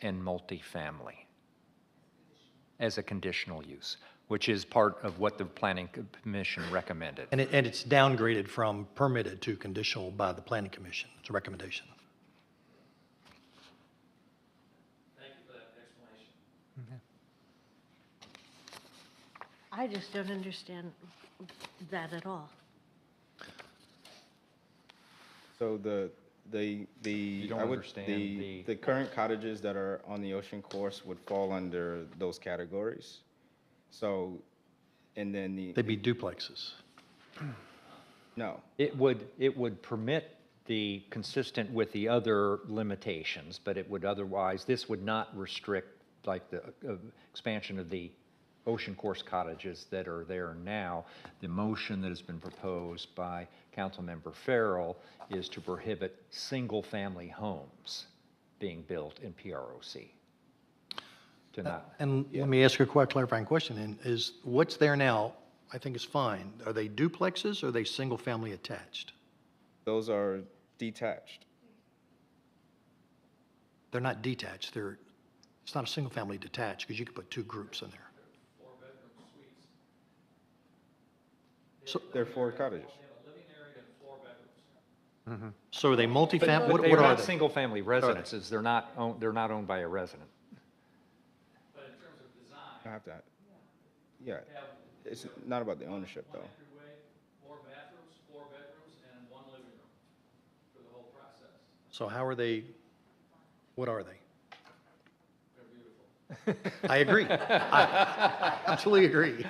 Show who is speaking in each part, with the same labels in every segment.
Speaker 1: and multifamily as a conditional use, which is part of what the planning commission recommended.
Speaker 2: And it, and it's downgraded from permitted to conditional by the planning commission. It's a recommendation.
Speaker 3: I just don't understand that at all.
Speaker 4: So the, the, the.
Speaker 1: You don't
Speaker 4: I would-
Speaker 1: understand the-
Speaker 4: The current cottages that are on the ocean course would fall under those categories. So, and then the,
Speaker 2: They'd be duplexes.
Speaker 4: no,
Speaker 1: It would, it would permit the, consistent with the other limitations, but it would otherwise, this would not restrict like the uh, expansion of the ocean course cottages that are there now. The motion that has been proposed by Councilmember Farrell is to prohibit single-family homes being built in PROC.
Speaker 2: Uh,
Speaker 1: To not,
Speaker 2: And let me ask you a quite clarifying question, and is, what's there now, I think is fine. Are they duplexes or are they single-family attached?
Speaker 4: those are detached.
Speaker 2: They're not detached, they're, it's not a single-family detached, because you could put two groups in there.
Speaker 4: They're four cottages.
Speaker 2: So are they multifam,
Speaker 1: but
Speaker 2: what,
Speaker 1: they're
Speaker 2: what are
Speaker 1: not
Speaker 2: they?
Speaker 1: single-family residences, they're not, own- they're not owned by a resident.
Speaker 4: I have to, yeah. It's not about the ownership though.
Speaker 2: So how are they, what are they? I agree. I absolutely agree.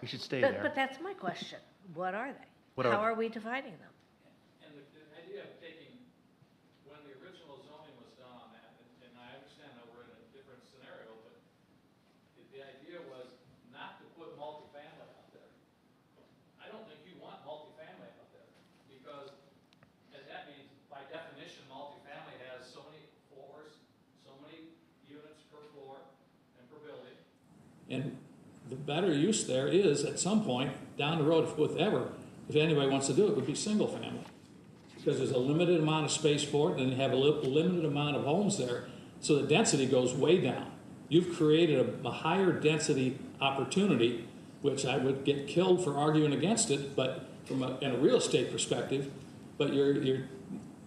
Speaker 2: We should stay
Speaker 3: But, but
Speaker 2: there.
Speaker 3: that's my question. What are they?
Speaker 2: What are
Speaker 3: How
Speaker 2: they?
Speaker 3: are we defining them?
Speaker 5: And the, the idea of taking, when the original zoning was done on that, and, and I understand that we're in a different scenario, but the, the idea was not to put multifamily out there. I don't think you want multifamily out there, because that, that means by definition, multifamily has so many floors, so many units per floor and per building. And the better use there is, at some point, down the road, if with ever, if anybody wants to do it, would be single family. Because there's a limited amount of space for it, and they have a li- limited amount of homes there, so the density goes way down. You've created a, a higher density opportunity, which I would get killed for arguing against it, but from a, in a real estate perspective, but you're, you're,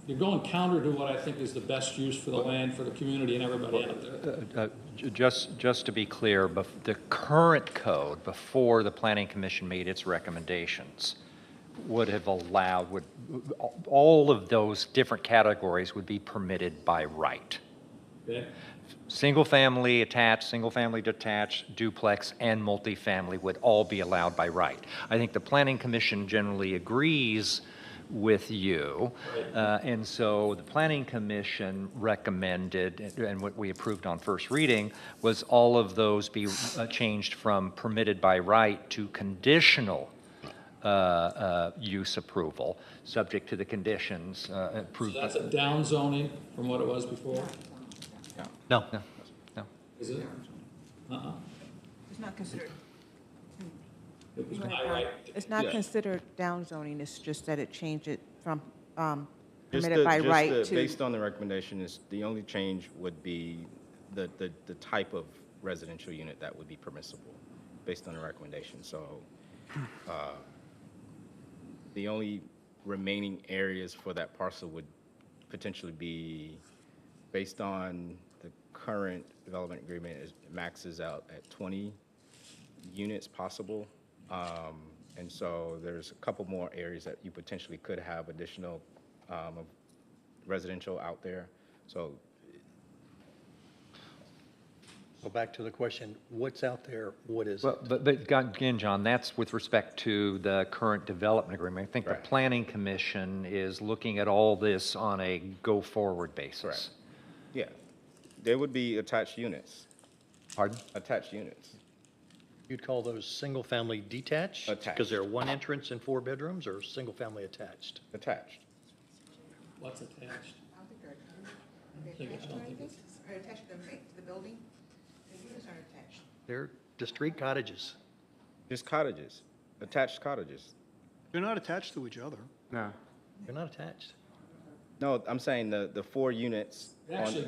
Speaker 5: you're going counter to what I think is the best use for the land, for the community and everybody out there.
Speaker 1: Uh, j- Just, just to be clear, bef- the current code, before the planning commission made its recommendations, would have allowed, would, all of those different categories would be permitted by right.
Speaker 5: Okay?
Speaker 1: Single-family attached, single-family detached, duplex, and multifamily would all be allowed by right. I think the planning commission generally agrees with you, uh, and so the planning commission recommended, and what we approved on first reading, was all of those be uh, changed from permitted by right to conditional uh, uh, use approval, subject to the conditions uh, approved.
Speaker 5: So that's a down zoning from what it was before,
Speaker 2: No,
Speaker 5: is it? Uh-uh.
Speaker 6: It's not considered,
Speaker 5: It was my right.
Speaker 6: it's not
Speaker 4: Yeah.
Speaker 6: considered downzoning, it's just that it changed it from um,
Speaker 4: Just
Speaker 6: permitted
Speaker 4: the-
Speaker 6: by
Speaker 4: just
Speaker 6: right
Speaker 4: the-
Speaker 6: to,
Speaker 4: Based on the recommendation is, the only change would be the, the, the type of residential unit that would be permissible, based on the recommendation, so, uh, the only remaining areas for that parcel would potentially be, based on the current development agreement, is maxes out at twenty units possible. Um, And so there's a couple more areas that you potentially could have additional um, residential out there. So
Speaker 2: go back to the question, what's out there, what is it?
Speaker 1: Well, But, but God- again, John, that's with respect to the current development agreement. I think the
Speaker 4: Right.
Speaker 1: planning commission is looking at all this on a go-forward basis.
Speaker 4: Correct. Yeah, there would be attached units,
Speaker 1: Pardon?
Speaker 4: attached units.
Speaker 2: You'd call those single-family detached? Because
Speaker 4: Attached.
Speaker 2: they're one entrance and four bedrooms, or single-family attached?
Speaker 4: Attached.
Speaker 5: What's attached?
Speaker 7: I don't think they're
Speaker 5: I think it's- I don't think it's-
Speaker 7: are attached to the, ma- to the building. The units aren't attached.
Speaker 2: They're just three cottages.
Speaker 4: Just cottages, attached cottages.
Speaker 8: They're not attached to each other.
Speaker 2: They're not attached.
Speaker 4: No, I'm saying the, the four units.
Speaker 5: It
Speaker 4: on-
Speaker 5: Actually,